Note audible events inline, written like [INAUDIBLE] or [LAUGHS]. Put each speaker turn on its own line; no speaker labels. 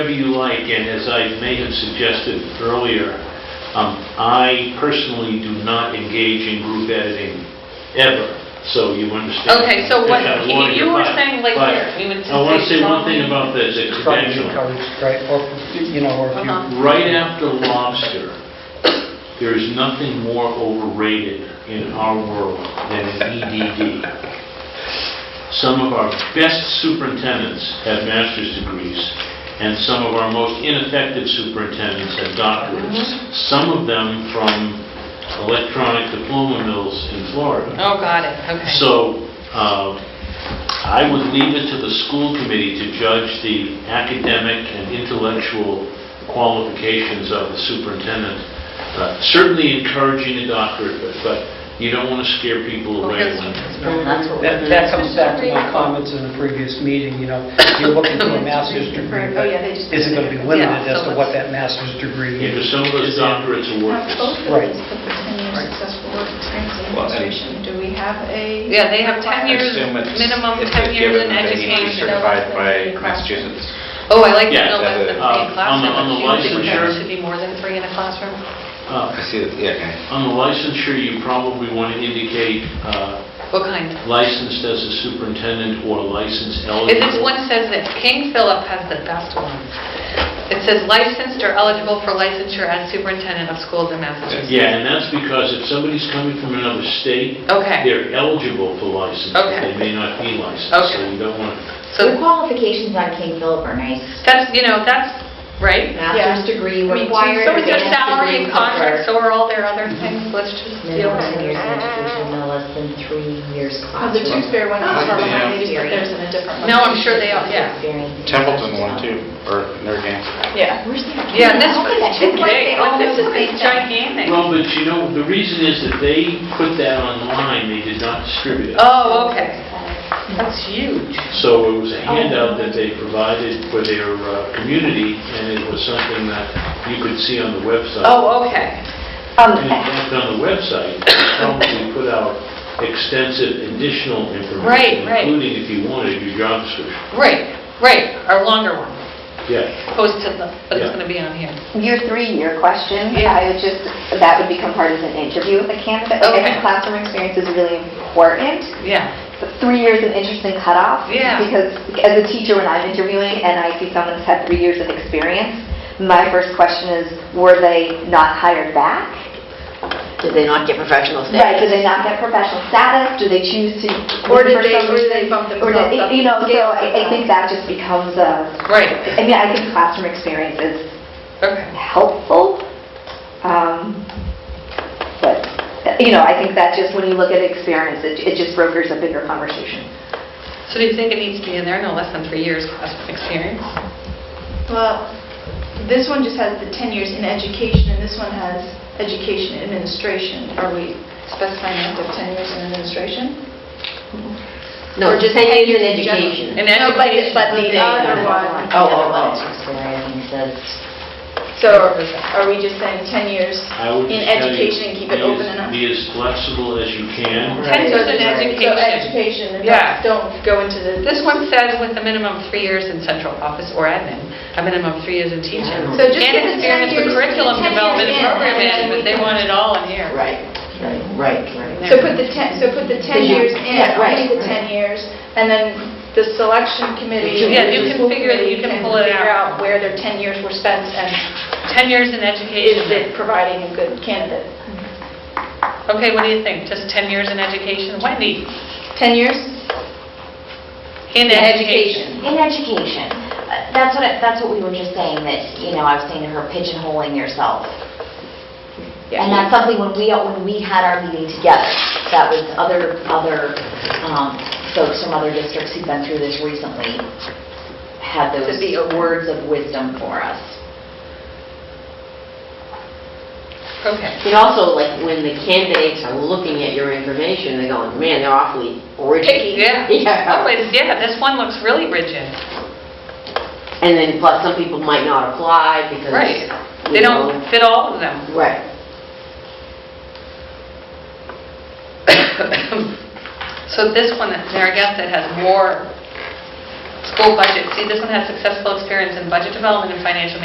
Whatever you like, and as I may have suggested earlier, um, I personally do not engage in group editing ever, so you understand.
Okay, so what,
That's a lawyer,
you were
but-
saying like
but
here, we would
I want to say one
strongly-
thing about this, it's
Try to
conventional.
encourage, right, or, you know, or if you...
Uh-huh.
Right after lobster, there is nothing more overrated in our world than an EDD. Some of our best superintendents have master's degrees, and some of our most ineffective superintendents have doctorates, some of them from electronic diploma mills in Florida.
Oh, got it, okay.
So um, I would leave it to the school committee to judge the academic and intellectual qualifications of the superintendent. Uh, Certainly encouraging a doctorate, but- but you don't want to scare people away
Because-
when...
That's what
That that comes back to my comments in the previous meeting, you know, you're looking for a master's degree,
Oh,
but
yeah, they just-
is it going to be
Yeah, so
limited as to
let's-
what that master's degree
Because
is?
some of those doctorates are worthless.
Right.
Right. Successful work experience in
Well, and-
administration, do we have a?
Yeah, they have 10
I
years.
assume it's-
Minimum
if
10
they've
years
given
in
them, they need to be
education.
Certified by Massachusetts.
Oh, I like to
Yeah,
know less
that's
than
a-
three in a
uh, on the-
classroom.
on the
Do you think there
licensure-
should be more than three in a classroom?
Uh,
I see, that- yeah, okay.
On the licensure, you probably want to indicate uh,
What kind?
licensed as a superintendent or licensed
If
eligible.
this one says that King Philip has the best one. It says licensed or eligible for licensure as superintendent of schools in Massachusetts.
Yeah, and that's because if somebody's coming from another state,
Okay,
They're eligible for license, but they may not be licensed, so
Okay.
you don't want to...
The
so
qualifications on King Philip are nice.
that's, you know, that's, right?
Master's degree
I mean,
required.
So is their
advanced
salary and
degree covered.
contract, so are all their other things, let's just deal
Minimum
with
ten years
it.
in education, no less than three years
Oh, The two
classroom.
spare ones are
Yeah.
behind, they just put theirs in a different one.
No, I'm sure they are, yeah.
Experience.
Templeton one too, or Narragansett.
Yeah.
Where's their?
Yeah, this
Oh,
is
that's
too
like they
big,
all
oh, this
know
is
the
big,
same thing.
gigantic.
Well, but you know, the reason is that they put that online, they did not distribute it.
Oh, okay. That's huge.
So it was a handout that they provided for their uh, community, and it was something that you could see on the website.
Oh, okay.
Um,
And in fact, on the website, they probably put out extensive additional
Right,
information,
right.
including if you wanted your job description.
Right, right, our longer one,
Yeah,
opposed to the, but it's
Yeah.
gonna be on here.
Your three, your question,
Yeah.
I would just, that would become part of an interview with a candidate. Like, I
Okay.
think classroom experience is really important,
Yeah,
but three years is an interesting cutoff.
Yeah.
Because as a teacher, when I'm interviewing and I see someone who's had three years of experience, my first question is, were they not hired back?
Did they not get professional
Right, did they not get professional status? Do they choose to?
Or did
for
they
some
really
reason-
bump
Or did,
themselves up?
you know, so I I think that just becomes a,
right,
I mean, I think classroom experience is
okay.
helpful, um, but, you know, I think that just, when you look at experience, it it just brokers a bigger conversation.
So do you think it needs to be in there, no less than three years classroom experience?
Well, this one just has the 10 years in education, and this one has education administration. Are we specifying up to 10 years in administration?
No, just ten years in education.
In
No, but-
education.
But the other one.
Oh, oh, oh. Sorry, I think it says,
So are we just saying 10 years?
I would
In
just tell you,
education and keep
be
it open
as-
enough.
Be as flexible as you can.
Ten years in
So
education.
education, and
Yeah.
don't- don't go into the...
This one says with a minimum of three years in central office or admin, a minimum of three years in teaching.
So just give
And
it 10
experience with
years-
curriculum
10 years
development and
in,
program
and then
management,
we
they
can-
want it all in here.
right, right, right, right.
So put the 10, so put the 10
Yeah.
years in,
Yeah, right.
only the 10 years, and then the selection committee.
Yeah,
the
you
can
school
figure that you
committee
can pull it
Figure
out.
out where their 10 years were spent and
10 years in
is
education.
it providing a good candidate?
Okay, what do you think? Just 10 years in education? Wendy?
10 years?
In education.
In education, Uh, that's what, I- that's what we were just saying, that, you know, I was saying to her pigeonholing yourself.
Yeah.
And that's something when we, when we had our meeting together, that was other, other um, folks from other districts who've been through this recently had those
be open.
words of wisdom for us.
Okay.
And also, like, when the candidates are looking at your information, they're going, man, they're awfully
Picky, [LAUGHS]
rigid.
yeah. Oh,
[LAUGHS] Yeah.
it's- yeah, this one looks really rigid.
And then plus, some people might not apply because.
Right.
you
They don't
know.
fit all of them. [COUGHS]
Right.
So this one, that Narragansett has more school budget. See, this one has successful experience in budget development and financial